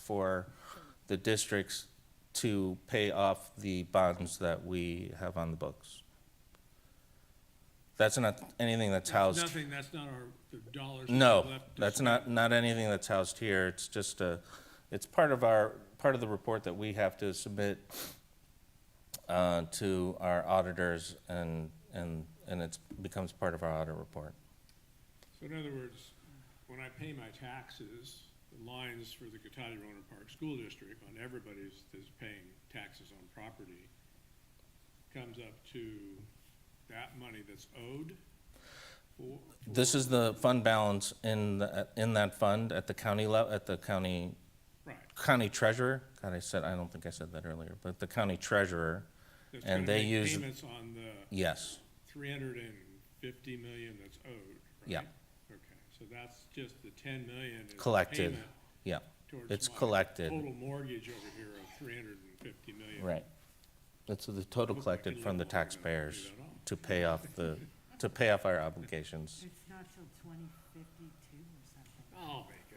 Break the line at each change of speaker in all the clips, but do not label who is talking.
for the districts to pay off the bonds that we have on the books. That's not anything that's housed,
Nothing, that's not our, the dollars. we
no,
left to
that's
spend.
not, not anything that's housed here, it's just a, it's part of our, part of the report that we have to submit uh, to our auditors and, and, and it's, becomes part of our audit report.
So in other words, when I pay my taxes, the lines for the Cotati Roner Park School District on everybody's that's paying taxes on property comes up to that money that's owed for,
This is the fund balance in, the- in that fund at the county level, at the county
right.
county treasurer, God, I said, I don't think I said that earlier, but the county treasurer,
that's
And
gonna
they
make
use-
Payments on the
yes,
three hundred and fifty million that's owed, right?
Yeah.
Okay, so that's just the ten million is the
Collected.
payment
yeah,
towards
It's
my
collected.
Total mortgage over here of three hundred and fifty million.
right. That's the total collected from the taxpayers to pay off the, to pay off our obligations.
It's not till twenty fifty-two or something.
I'll make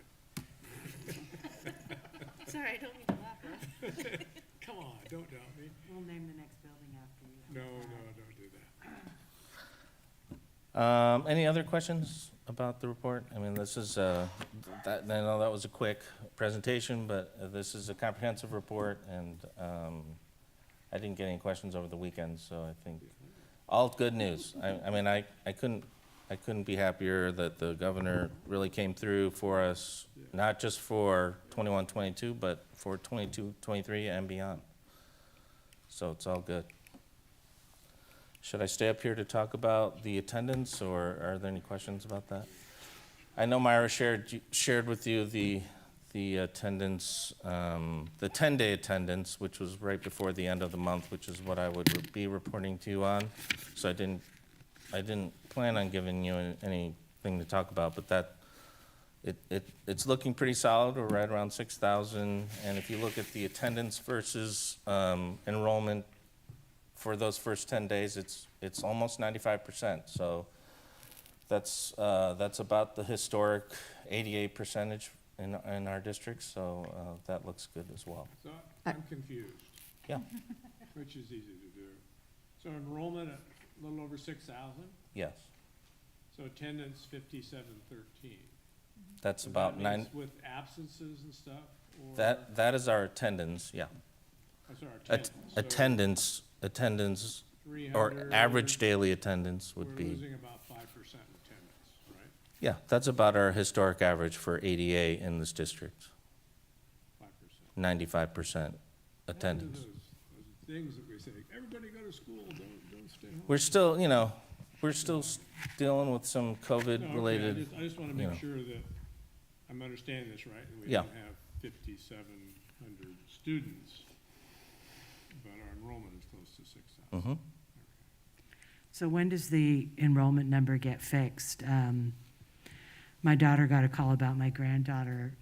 it.
Sorry, I don't mean to laugh.
Come on, don't doubt me.
We'll name the next building after
No,
you.
no, don't do that.
Um, any other questions about the report? I mean, this is, uh, that, I know that was a quick presentation, but uh, this is a comprehensive report and, um, I didn't get any questions over the weekend, so I think all good news. I, I mean, I, I couldn't, I couldn't be happier that the governor really came through for us, not just for twenty-one, twenty-two, but for twenty-two, twenty-three and beyond. So it's all good. Should I stay up here to talk about the attendance, or are there any questions about that? I know Myra shared, shared with you the, the attendance, um, the 10-day attendance, which was right before the end of the month, which is what I would be reporting to you on. So I didn't, I didn't plan on giving you an- anything to talk about, but that, it, it, it's looking pretty solid, we're right around 6,000. And if you look at the attendance versus um, enrollment for those first 10 days, it's, it's almost 95%. So that's, uh, that's about the historic 88 percentage in, in our district, so uh, that looks good as well.
So I'm confused,
Yeah,
which is easy to do. So enrollment at a little over six thousand,
yes,
so attendance fifty-seven thirteen.
that's about nine,
With absences and stuff, or?
that, that is our attendance, yeah.
I'm sorry,
At-
attendance. So
Attendance, attendance, or
300
average daily attendance would
We're
be,
losing about five percent attendance, right?
yeah, that's about our historic average for ADA in this district,
Five
95%
percent.
attendance.
Those Things that we say, everybody go to school, don't, don't stay home.
We're still, you know, we're still s- dealing with some
No, okay, I
COVID-related,
just- I just want to
you
make
know.
sure that I'm understanding this right, that we
Yeah.
don't have fifty-seven hundred students, but our enrollment is close to six
Mm-hmm.
thousand.
So when does the enrollment number get fixed? Um, My daughter got a call about my granddaughter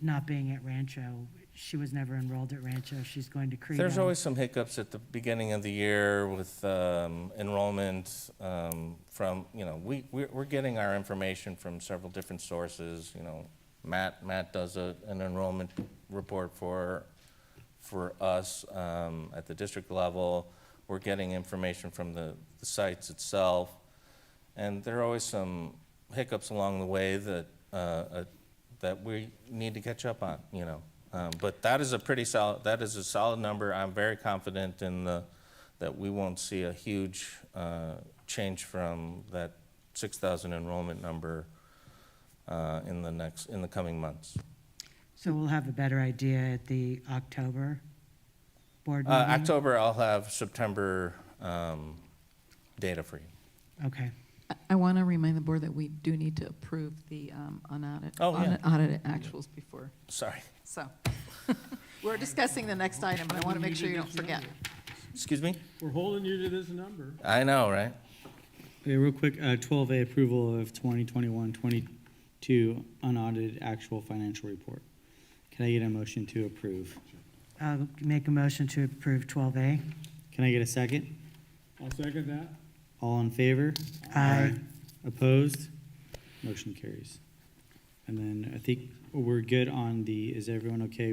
not being at Rancho. She was never enrolled at Rancho. She's going to Credo.
There's always some hiccups at the beginning of the year with um, enrollment um, from, you know, we, we're we're getting our information from several different sources, you know. Matt, Matt does a, an enrollment report for, for us um, at the district level. We're getting information from the the sites itself. And there are always some hiccups along the way that, uh, uh, that we need to catch up on, you know. Um, But that is a pretty solid, that is a solid number. I'm very confident in the, that we won't see a huge uh, change from that 6,000 enrollment number uh, in the next, in the coming months.
So we'll have a better idea at the October board
Uh,
meeting?
October, I'll have September um, data for you.
Okay.
I- I want to remind the board that we do need to approve the um, unaudited,
Oh, yeah.
unaudited actuals before,
Sorry.
so. We're discussing the next item, but I want to make sure you don't forget.
Excuse me?
We're holding you to this number.
I know, right?
Okay, real quick, uh, 12A, approval of 2021-22 unaudited actual financial report. Can I get a motion to approve?
I'll make a motion to approve 12A.
Can I get a second?
I'll second that.
All in favor?
Aye.
Opposed? Motion carries. And then I think we're good on the, is everyone okay